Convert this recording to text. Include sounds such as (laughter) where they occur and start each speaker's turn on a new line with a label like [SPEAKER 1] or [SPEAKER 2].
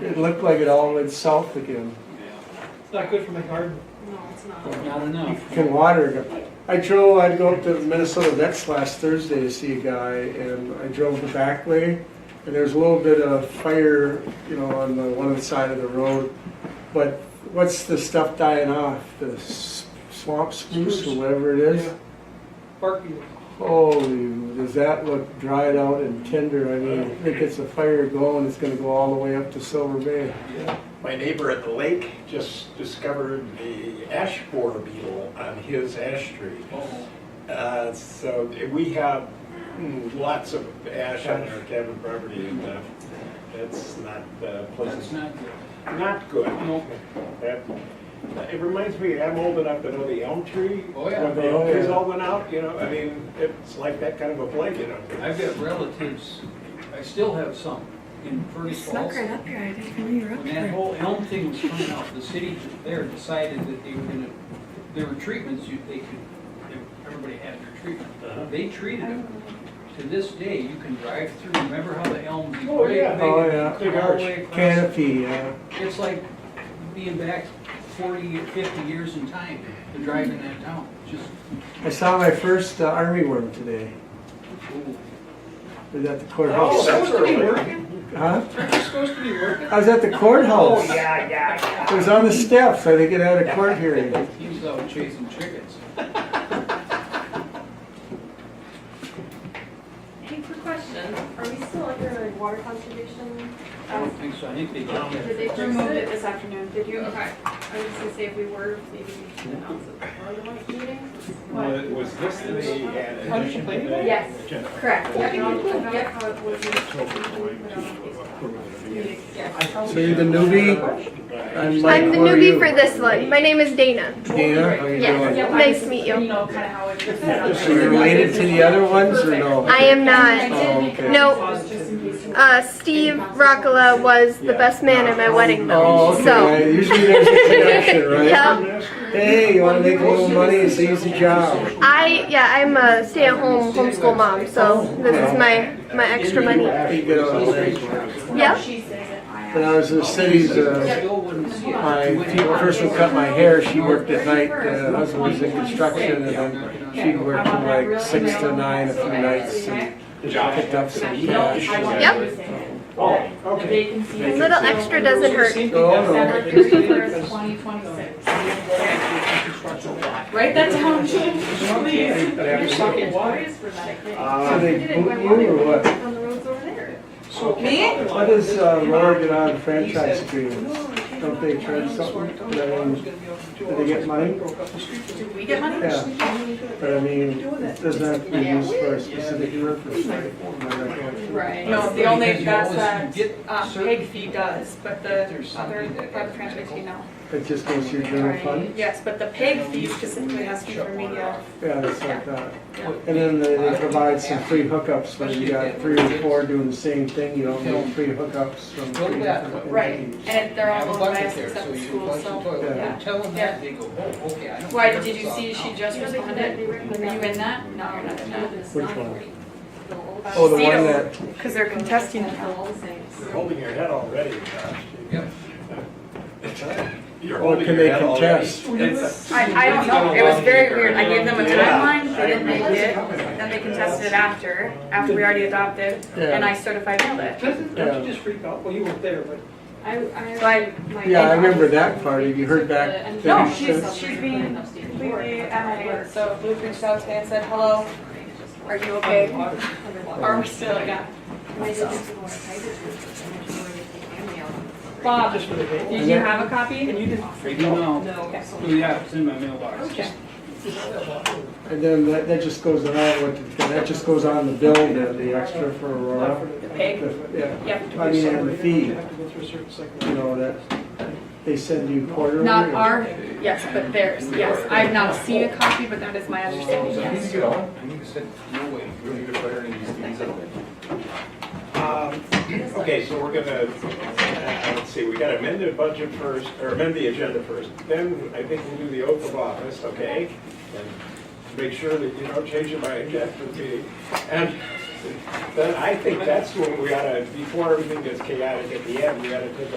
[SPEAKER 1] It looked like it all went south again.
[SPEAKER 2] It's not good for my garden.
[SPEAKER 3] No, it's not.
[SPEAKER 4] Not
[SPEAKER 1] You
[SPEAKER 4] enough.
[SPEAKER 1] can water it. I drove, I'd go up to Minnesota Vets last Thursday to see a guy, and I drove the back way, and there's a little bit of fire, you know, on the one side of the road. But what's the stuff dying off? The s- swamp spruce or whatever it is?
[SPEAKER 2] Yeah. Bark beetle.
[SPEAKER 1] Holy, does that look dried out and tender? I mean, if it gets a fire going, it's gonna go all the way up to Silver Bay.
[SPEAKER 5] My neighbor at the lake just discovered the ash borer beetle on his ash tree.
[SPEAKER 2] Oh.
[SPEAKER 5] Uh, So we have mm, lots of ash on our cabin property and uh, that's not uh,
[SPEAKER 4] That's
[SPEAKER 5] pleasant.
[SPEAKER 4] not good.
[SPEAKER 5] Not good.
[SPEAKER 4] Nope.
[SPEAKER 5] That- It reminds me, I'm old enough to know the elm tree.
[SPEAKER 4] Oh, yeah.
[SPEAKER 5] When the elm trees
[SPEAKER 1] Oh, yeah.
[SPEAKER 5] all went out, you know, I mean, it's like that kind of a plague, you know.
[SPEAKER 4] I've got relatives, I still have some in
[SPEAKER 3] You
[SPEAKER 4] Ferdy
[SPEAKER 3] snuck
[SPEAKER 4] Falls.
[SPEAKER 3] right up here, I didn't know you were up
[SPEAKER 4] When that
[SPEAKER 3] here.
[SPEAKER 4] whole elm thing was coming out, the city there decided that they were gonna, there were treatments you, they could, everybody had their treatment.
[SPEAKER 5] Uh-huh.
[SPEAKER 4] They treated them.
[SPEAKER 3] Um,
[SPEAKER 4] To this day, you can drive through, remember how the elms.
[SPEAKER 5] Oh, yeah.
[SPEAKER 1] Oh, yeah.
[SPEAKER 4] Big
[SPEAKER 5] Big arch.
[SPEAKER 1] Canopy, uh,
[SPEAKER 4] It's like being back 40, 50 years in time to driving that town, just,
[SPEAKER 1] I saw my first uh, army worm today.
[SPEAKER 4] ooh.
[SPEAKER 1] I was at the
[SPEAKER 2] Oh,
[SPEAKER 1] courthouse.
[SPEAKER 2] that was supposed to be
[SPEAKER 5] early.
[SPEAKER 2] working?
[SPEAKER 1] Huh?
[SPEAKER 2] Aren't you supposed to be working?
[SPEAKER 1] I was at the courthouse.
[SPEAKER 2] Oh, yeah, yeah.
[SPEAKER 1] It was on the steps. I think it had a court hearing.
[SPEAKER 4] He was out chasing chickens.
[SPEAKER 3] Hey, quick question, are we still under water conservation?
[SPEAKER 4] I don't think so, I think they got
[SPEAKER 3] Did they
[SPEAKER 4] that.
[SPEAKER 3] remove it this afternoon, did you? Okay. I was just gonna say if we were, maybe we should announce it before the next meeting. What?
[SPEAKER 5] Was this the
[SPEAKER 2] How did you play today?
[SPEAKER 3] Yes, correct. Yep, yep, how it was. Yes.
[SPEAKER 1] So you're the newbie? I'm Mike.
[SPEAKER 6] I'm the (laughs)
[SPEAKER 1] Who are you?
[SPEAKER 6] newbie for this one. My name is Dana.
[SPEAKER 1] Dana, how you
[SPEAKER 6] Yes.
[SPEAKER 1] doing?
[SPEAKER 6] Nice to meet you.
[SPEAKER 3] know, kind of how it
[SPEAKER 1] So you're related to the other ones or no?
[SPEAKER 6] I am not.
[SPEAKER 1] Oh, okay.
[SPEAKER 6] No. Uh, Steve Rockala was the best man at my wedding,
[SPEAKER 1] Oh,
[SPEAKER 6] though.
[SPEAKER 1] okay.
[SPEAKER 6] So,
[SPEAKER 1] Usually there's a connection,
[SPEAKER 6] (laughs)
[SPEAKER 1] right?
[SPEAKER 6] Yep.
[SPEAKER 1] Hey, you want to make a little money? It's an easy job.
[SPEAKER 6] I yeah, I'm a stay-at-home homeschool mom. So this is my my extra money.
[SPEAKER 1] You get all that.
[SPEAKER 6] Yep.
[SPEAKER 1] When I was in the cities, uh,
[SPEAKER 4] Still wouldn't see it.
[SPEAKER 1] my person cut my hair. She worked at night. Uh, husband was in construction, and then she'd work from like six to nine a few nights and picked up some cash.
[SPEAKER 6] Yep.
[SPEAKER 5] Oh, okay.
[SPEAKER 6] A little extra doesn't hurt.
[SPEAKER 1] Oh, no.
[SPEAKER 3] Write that down, Jim, please.
[SPEAKER 1] So Uh, they boot you or what?
[SPEAKER 3] On the roads over there.
[SPEAKER 2] Me?
[SPEAKER 1] What does uh, Laura get out of franchise agreements? Don't they charge something? I mean, Do they get money?
[SPEAKER 3] Do we get money?
[SPEAKER 1] Yeah. But I mean, it doesn't have to be used for a specific purpose. right?
[SPEAKER 3] Right.
[SPEAKER 7] No, the only, that's
[SPEAKER 4] Because you
[SPEAKER 7] that,
[SPEAKER 4] always
[SPEAKER 7] uh,
[SPEAKER 4] get
[SPEAKER 7] peg fee does, but the other,
[SPEAKER 4] something that-
[SPEAKER 7] private transportation, no.
[SPEAKER 1] uh, It just goes to your general fund?
[SPEAKER 7] Yes, but the peg fee specifically has to be for media.
[SPEAKER 1] Yeah, it's like that. And then they they provide some free hookups when you got three or four doing the same thing, you don't know free hookups from. free hookup
[SPEAKER 7] Right,
[SPEAKER 1] entities.
[SPEAKER 7] and they're
[SPEAKER 4] Have a
[SPEAKER 7] all owned by
[SPEAKER 4] bucket
[SPEAKER 7] us
[SPEAKER 4] there,
[SPEAKER 7] except
[SPEAKER 4] so
[SPEAKER 7] the
[SPEAKER 4] you
[SPEAKER 7] school,
[SPEAKER 4] flush the
[SPEAKER 7] so.
[SPEAKER 4] toilet.
[SPEAKER 1] Yeah.
[SPEAKER 4] You Tell them
[SPEAKER 7] Yeah.
[SPEAKER 4] that, they go, oh, okay, I don't.
[SPEAKER 7] Why,
[SPEAKER 4] care
[SPEAKER 7] did you
[SPEAKER 4] about
[SPEAKER 7] see she
[SPEAKER 4] now."
[SPEAKER 7] just responded? Were you in that? No, you're not in that.
[SPEAKER 1] Which one? Oh, the one that,
[SPEAKER 7] Because they're contesting it.
[SPEAKER 5] You're holding your head already, Josh.
[SPEAKER 4] Yep.
[SPEAKER 5] You're
[SPEAKER 1] oh,
[SPEAKER 5] holding
[SPEAKER 1] can
[SPEAKER 5] your
[SPEAKER 1] they
[SPEAKER 5] head already.
[SPEAKER 1] contest?
[SPEAKER 5] It's-
[SPEAKER 7] I, I don't know, it was very weird, I gave them a timeline, they didn't make it, then they contested it after, after we already adopted, and I certified mailed it.
[SPEAKER 2] Doesn't, don't you just freak out? Well, you weren't there, but
[SPEAKER 3] I,
[SPEAKER 7] So I
[SPEAKER 3] I.
[SPEAKER 1] Yeah, I remember that part. Have you heard back?
[SPEAKER 7] No,
[SPEAKER 1] Thirty
[SPEAKER 7] she's,
[SPEAKER 1] cents.
[SPEAKER 7] she's being completely animated, so Luke reached out today and said, hello, are you okay? Are we still, yeah. Bob,
[SPEAKER 2] just for the day.
[SPEAKER 7] did you have a copy?
[SPEAKER 2] And you didn't
[SPEAKER 4] They
[SPEAKER 2] freak
[SPEAKER 4] do
[SPEAKER 2] out?
[SPEAKER 4] know.
[SPEAKER 7] Okay.
[SPEAKER 4] Oh, yeah, it's in my mailbox.
[SPEAKER 7] Okay.
[SPEAKER 1] And then that, that just goes on, with- that just goes on the bill, the, the extra for Aurora.
[SPEAKER 7] The pig?
[SPEAKER 1] The- Yeah,
[SPEAKER 7] Yep.
[SPEAKER 1] I mean, and the
[SPEAKER 2] You
[SPEAKER 1] fee,
[SPEAKER 2] have to go through a certain cycle.
[SPEAKER 1] you know, that, they send you quarterly.
[SPEAKER 7] Not
[SPEAKER 1] or-
[SPEAKER 7] our, yes, but theirs, yes. I've not seen a copy, but that is my understanding,
[SPEAKER 4] I need
[SPEAKER 7] yes.
[SPEAKER 4] to get on. I need to sit, no way.
[SPEAKER 8] We don't need to put any of these things in.
[SPEAKER 5] Um, Okay, so we're gonna, uh, let's see, we gotta amend the budget first, or amend the agenda first. Then I think we'll do the oath of office, okay? And make sure that you don't change your mind after the meeting. And then I think that's when we gotta, before everything gets chaotic at the end, we gotta take a